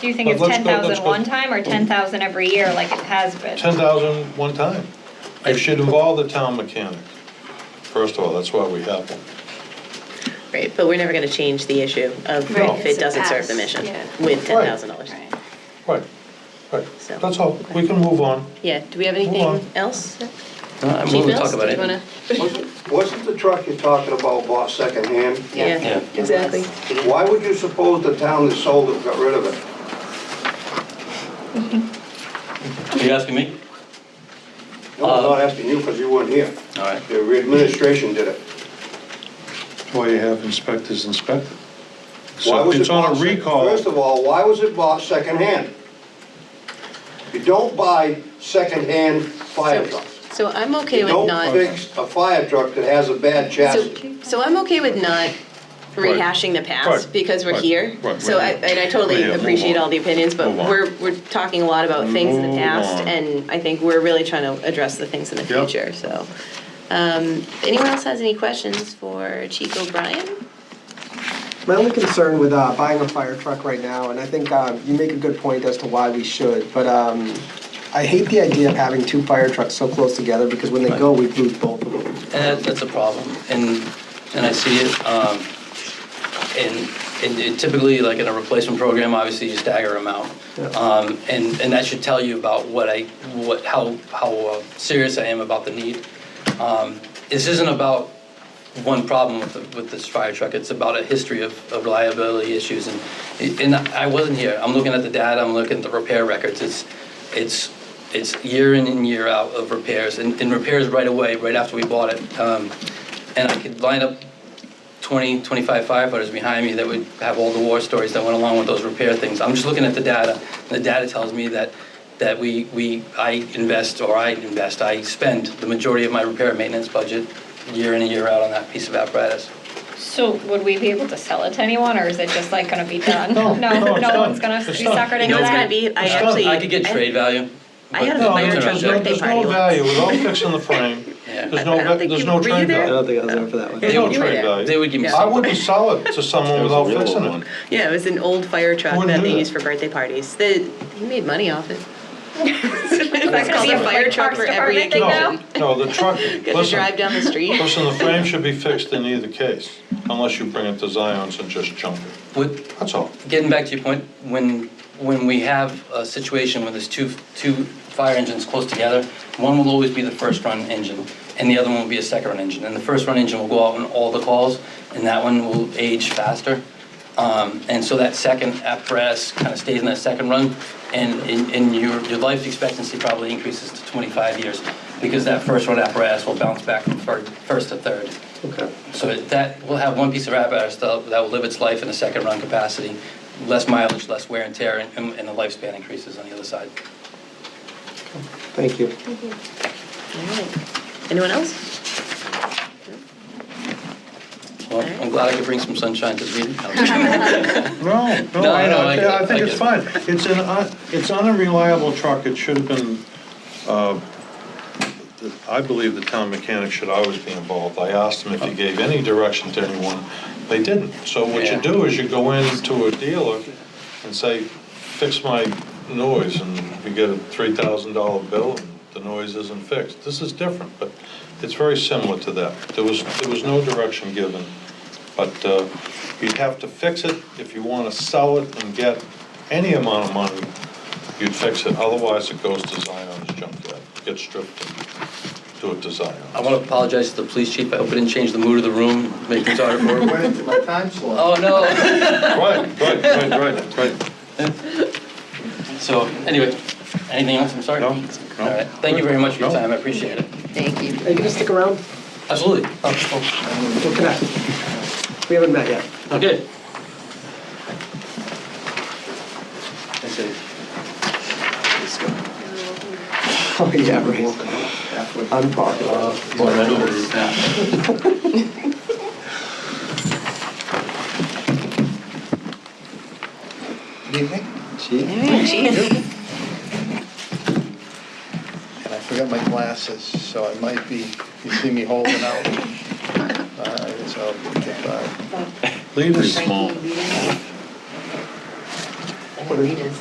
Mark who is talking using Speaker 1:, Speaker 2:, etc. Speaker 1: Do you think
Speaker 2: But
Speaker 1: it's
Speaker 2: let's go-
Speaker 1: ten thousand
Speaker 2: let's go-
Speaker 1: one time or ten thousand every year like it has been?
Speaker 2: 10,000 one time. It should involve the town mechanic. First of all, that's why we have one.
Speaker 3: Right, but we're never going to change the issue of
Speaker 2: No.
Speaker 3: if it doesn't serve the mission
Speaker 4: Yeah.
Speaker 3: with
Speaker 2: Right.
Speaker 3: $10,000.
Speaker 2: Right, right.
Speaker 3: So-
Speaker 2: That's all. We can move on.
Speaker 3: Yeah, do we have
Speaker 2: Move
Speaker 3: anything
Speaker 2: on.
Speaker 3: else? Chief
Speaker 5: I'm willing to
Speaker 3: Mills,
Speaker 5: talk about
Speaker 3: did
Speaker 5: it.
Speaker 3: you wanna-
Speaker 6: Wasn't the truck you're talking about bought secondhand?
Speaker 3: Yeah,
Speaker 5: Yeah.
Speaker 3: exactly.
Speaker 6: Why would you suppose the town that sold it got rid of it?
Speaker 5: Are you asking me?
Speaker 6: No, I'm
Speaker 3: Uh,
Speaker 6: not asking you because you weren't here.
Speaker 5: All right.
Speaker 6: The administration did it.
Speaker 2: Well, you have inspectors inspect it.
Speaker 6: Why
Speaker 2: So
Speaker 6: was
Speaker 2: it's
Speaker 6: it
Speaker 2: on
Speaker 6: bought
Speaker 2: a
Speaker 6: sec-
Speaker 2: recall.
Speaker 6: First of all, why was it bought secondhand? You don't buy secondhand fire
Speaker 3: So-
Speaker 6: trucks.
Speaker 3: So I'm okay
Speaker 6: You
Speaker 3: with
Speaker 6: don't
Speaker 3: not,
Speaker 6: fix a fire truck that has a bad chassis.
Speaker 3: so, so I'm okay with not
Speaker 2: Right.
Speaker 3: rehashing the past
Speaker 2: Right.
Speaker 3: because we're
Speaker 2: Right.
Speaker 3: here.
Speaker 2: Right.
Speaker 3: So I, and I totally
Speaker 2: Yeah, move
Speaker 3: appreciate
Speaker 2: on.
Speaker 3: all the opinions, but
Speaker 2: Move on.
Speaker 3: we're, we're talking a lot about things in the
Speaker 2: Move
Speaker 3: past
Speaker 2: on.
Speaker 3: and I think we're really trying to address the things in the
Speaker 2: Yep.
Speaker 3: future, so. Um, anyone else has any questions for Chief O'Brien?
Speaker 7: My only concern with uh, buying a fire truck right now, and I think um, you make a good point as to why we should, but um, I hate the idea of having two fire trucks so close together because when they go, we lose both of them.
Speaker 5: And that, Uh, that's a problem, and, and I see it, um, and, and it typically, like in a replacement program, obviously you stagger them out.
Speaker 7: Yeah.
Speaker 5: Um, and, and that should tell you about what I, what, how, how uh, serious I am about the need. Um, this isn't about one problem with, the- with this fire truck, it's about a history of, of reliability issues, and, and I wasn't here, I'm looking at the data, I'm looking at the repair records, it's, it's, it's year in and year out of repairs, and, and repairs right away, right after we bought it. Um, And I could line up 20, 25 firefighters behind me that would have all the war stories that went along with those repair things. I'm just looking at the data, and the data tells me that, that we, we, I invest, or I invest, I spend the majority of my repair and maintenance budget year in and year out on that piece of apparatus.
Speaker 1: So would we be able to sell it to anyone or is it just like gonna be done?
Speaker 2: No, no, it's
Speaker 1: No
Speaker 2: done.
Speaker 1: one's gonna
Speaker 2: It's
Speaker 1: be
Speaker 2: done.
Speaker 1: suckered
Speaker 3: You
Speaker 1: into
Speaker 3: know, it's gonna
Speaker 1: that?
Speaker 3: be, I
Speaker 2: It's not-
Speaker 3: actually.
Speaker 5: I could get trade value.
Speaker 3: I
Speaker 5: but
Speaker 3: had a
Speaker 2: No,
Speaker 3: fire
Speaker 5: those
Speaker 2: there's
Speaker 5: are
Speaker 3: truck
Speaker 5: not
Speaker 2: no-
Speaker 5: there.
Speaker 3: birthday
Speaker 2: There's
Speaker 3: party
Speaker 2: no
Speaker 3: once.
Speaker 2: value without fixing the frame.
Speaker 5: Yeah.
Speaker 2: There's
Speaker 3: I
Speaker 2: no,
Speaker 3: don't think
Speaker 2: there's
Speaker 3: you-
Speaker 2: no
Speaker 3: were you
Speaker 2: trade
Speaker 3: there?
Speaker 7: I
Speaker 2: value.
Speaker 7: don't think I was there for that one.
Speaker 2: There's
Speaker 5: They
Speaker 2: no
Speaker 5: would-
Speaker 3: you were
Speaker 2: trade
Speaker 3: there.
Speaker 2: value.
Speaker 5: They would give me
Speaker 2: I
Speaker 5: something.
Speaker 2: wouldn't sell it to someone without
Speaker 8: real
Speaker 2: fixing
Speaker 8: one.
Speaker 2: it.
Speaker 3: Yeah, it was an old fire truck
Speaker 2: Wouldn't do
Speaker 3: that they
Speaker 2: that.
Speaker 3: used for birthday parties. The, he made money off it.
Speaker 1: Is that gonna
Speaker 3: called
Speaker 1: be a
Speaker 3: a
Speaker 1: fire
Speaker 3: fire
Speaker 1: truck
Speaker 3: truck
Speaker 1: for
Speaker 3: for every
Speaker 1: every thing now?
Speaker 2: No, no, the truck,
Speaker 3: Got to drive
Speaker 2: listen,
Speaker 3: down the street.
Speaker 2: listen, the frame should be fixed in either case, unless you bring it to Zion's and just junk it.
Speaker 5: Would,
Speaker 2: That's all.
Speaker 5: getting back to your point, when, when we have a situation where there's two, two fire engines close together, one will always be the first run engine, and the other one will be a second run engine. And the first run engine will go out on all the calls, and that one will age faster. Um, and so that second apparatus kind of stays in that second run, and, and and your, your life expectancy probably increases to 25 years, because that first run apparatus will bounce back from fir- first to third.
Speaker 7: Okay.
Speaker 5: So that, we'll have one piece of apparatus that that will live its life in a second run capacity, less mileage, less wear and tear, and and the lifespan increases on the other side.
Speaker 7: Thank you.
Speaker 3: Alright. Anyone else?
Speaker 5: Well, I'm glad I could bring some sunshine to the meeting. No, I'm just
Speaker 2: No,
Speaker 5: kidding.
Speaker 2: no,
Speaker 5: No, I know,
Speaker 2: I,
Speaker 5: I get it,
Speaker 2: I
Speaker 5: I
Speaker 2: think it's
Speaker 5: get it.
Speaker 2: fine. It's an, un- it's an unreliable truck, it should have been, uh, I believe the town mechanic should always be involved. I asked him if he gave any direction to anyone, they didn't. So what
Speaker 5: Yeah.
Speaker 2: you do is you go into a dealer and say, fix my noise, and you get a three thousand dollar bill, and the noise isn't fixed. This is different, but it's very similar to that. There was, there was no direction given, but uh, you'd have to fix it if you want to sell it and get any amount of money, you'd fix it, otherwise it goes to Zion's junkyard, gets stripped, and do it to Zion.
Speaker 5: I want to apologize to the police chief, I hope I didn't change the mood of the room, make things harder for him.
Speaker 6: My time slot.
Speaker 5: Oh, no.
Speaker 2: Right, right, right, right, right.
Speaker 5: So, anyway, anything else, I'm sorry?
Speaker 2: No,
Speaker 5: All
Speaker 2: no.
Speaker 5: right, thank you very much for your
Speaker 2: No.
Speaker 5: time, I appreciate it.
Speaker 3: Thank you.
Speaker 7: Are you gonna stick around?
Speaker 5: Absolutely. Oh,
Speaker 7: We'll connect. We haven't met yet.
Speaker 5: Okay.
Speaker 7: Oh, yeah, right. Unpopular.
Speaker 3: Alright, chief.
Speaker 8: And I forgot my glasses, so I might be, you see me holding out. Uh, All right, so, okay, bye.
Speaker 2: Leave it small.
Speaker 7: I think it is.